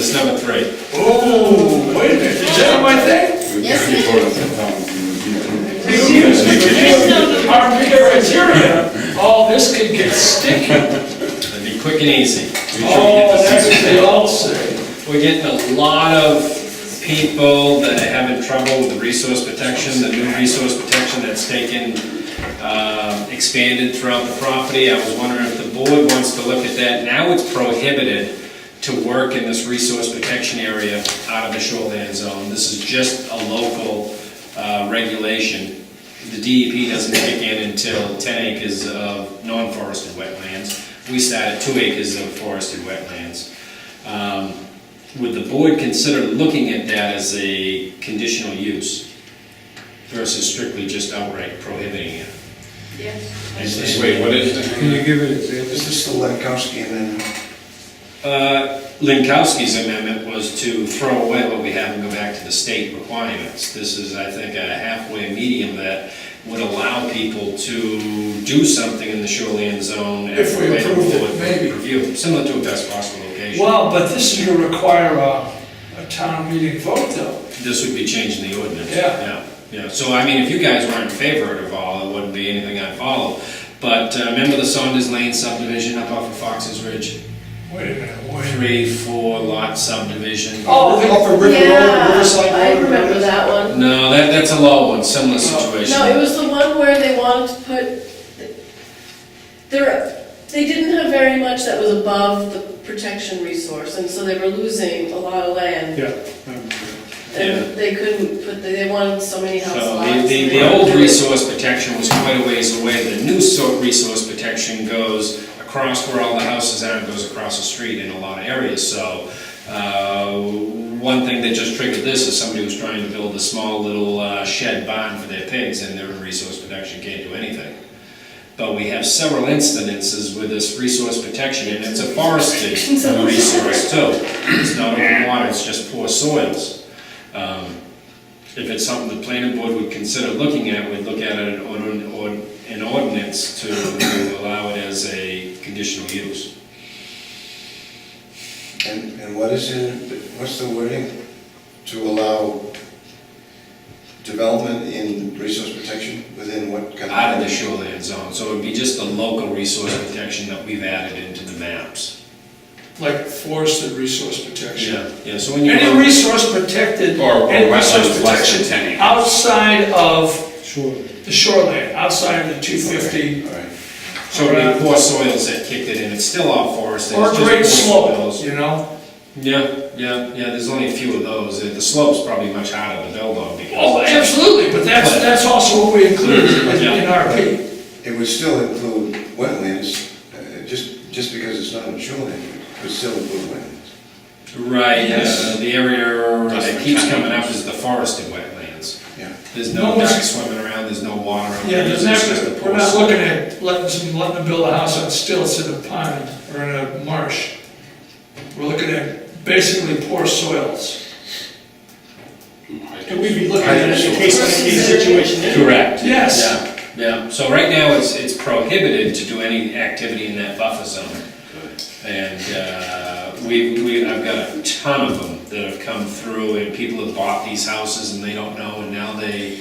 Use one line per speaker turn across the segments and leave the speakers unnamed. That's number three.
Oh, wait a minute, is that my thing?
Yes, it
Excuse me, but these are criteria. All this could get sticky.
It'd be quick and easy.
Oh, that's what they all say.
We're getting a lot of people that are having trouble with the resource protection, the new resource protection that's taken, uh, expanded throughout the property. I was wondering if the board wants to look at that. Now it's prohibited to work in this resource protection area out of the shoreline zone. This is just a local uh, regulation. The DEP doesn't kick in until 10 acres of non-forested wetlands. We start at 2 acres of forested wetlands. Um, Would the board consider looking at that as a conditional use versus strictly just outright prohibiting it?
Yes.
And-
Wait, what is it?
Can you give an example?
This is the Lankowski amendment.
Uh, Linkowski's amendment was to throw away what we have and go back to the state requirements. This is, I think, a halfway medium that would allow people to do something in the shoreline zone.
If we
after
approved it,
board
maybe.
Review, similar to a best possible location.
Well, but this is gonna require a, a town meeting vote though.
This would be changing the ordinance.
Yeah.
Yeah, so I mean, if you guys were in favor of all, it wouldn't be anything I'd follow. But uh, remember the Saunders Lane subdivision up off of Fox's Ridge?
Wait a minute, wait a minute.
Three, four lot subdivision.
Oh, they-
Off of River Road, Riverside
Yeah,
Road.
I remember that one.
No, that, that's a low one, similar
Oh.
situation.
No, it was the one where they wanted to put, there, they didn't have very much that was above the protection resource, and so they were losing a lot of land.
Yeah.
Yeah.
And they couldn't put, they they wanted so many house
So
lots.
the, the,
and they
the
wanted
old
to do it.
resource protection was quite a ways away, the new sort resource protection goes across where all the houses are, and goes across the street in a lot of areas, so, uh, one thing that just triggered this is somebody was trying to build a small little uh, shed barn for their pigs, and their resource protection can't do anything. But we have several instances with this resource protection, and it's a forested resource too. It's not open water, it's just poor soils. Um, If it's something the planning board would consider looking at, we'd look at it on an on an ordinance to allow it as a conditional use.
And, and what is in, what's the wording? To allow development in resource protection within what? kind
Out of the shoreline zone, so it'd be just the local resource protection that we've added into the maps.
like forested resource protection.
Yeah, so when you.
Any resource protected,
Or- or
any resource
wetlands less than
protection
10 acres.
outside of
Sure.
the shoreline, outside of the two
Okay,
fifty.
All right.
So it'd be poor soils that kicked it in, it's still off forest.
Or
it's just
great
poor
slope,
soils.
you know?
Yeah, yeah, yeah, there's only a few of those, Uh, the slope's probably much harder to build on because.
Oh, absolutely, but that's, that's also what we include in in RP.
It would still include wetlands, uh, just, just because it's not in shoreline, it would still include wetlands.
Right,
Yes.
uh, the area that
Just
keeps
kind of-
coming up is the forested wetlands.
Yeah.
There's
No
no
one's-
ducks swimming around, there's no water. out
Yeah,
there,
there's
it's just the
never,
poor
we're not
soil.
looking at letting, some- letting them build a house on stilts in a pond or in a marsh. We're looking at basically poor soils. And we'd be looking at it in a case-by-case situation.
Correct.
Yes,
Yeah, yeah, so right now, it's, it's prohibited to do any activity in that buffer zone. And, uh, we, we, I've got a ton of them that have come through, and people have bought these houses and they don't know, and now they,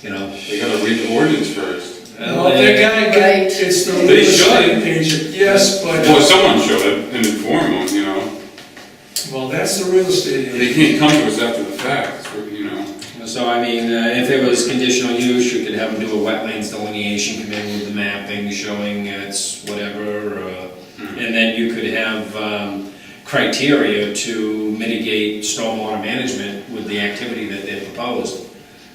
you know.
We gotta read the ordinance first.
well, that guy,
Right.
got- it's the
They
real estate
should.
agent, yes,
Well,
but,
someone should have and informed them, you know.
well, that's the real estate agent.
They can't come to us after the fact, so, you know.
So I mean, uh, if it was conditional use, you could have them do a wetlands delineation, come in with the mapping showing it's whatever, uh, and then you could have um, criteria to mitigate stormwater management with the activity that they proposed,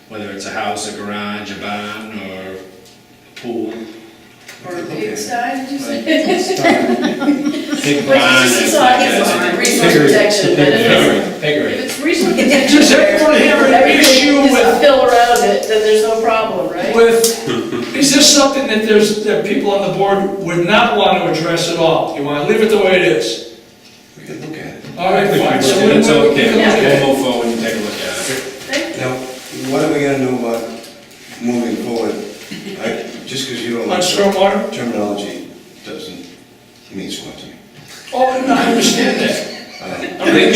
whether it's a house, a garage, a barn, or a pool.
Or a big sky, did you say?
Big
Which
barn.
is just a side, it's on resource
Figure it-
protection, but if it's-
Figure
If
it.
it's reasonable, if
Does everyone have an issue
everything is
with-
a fill around it, then there's no problem, right?
with, is this something that there's, that people on the board would not want to address at all? You want to leave it the way it is?
We could look at it.
All right, fine. So we-
It's
we- we can look at
okay,
it.
we'll move forward and take a look at it.
Thank you.
Now, what are we gonna do about moving forward? I- Just because you don't
On
like
stormwater?
terminology doesn't mean squat to me.
Oh, no, I understand that.
Um,
I mean,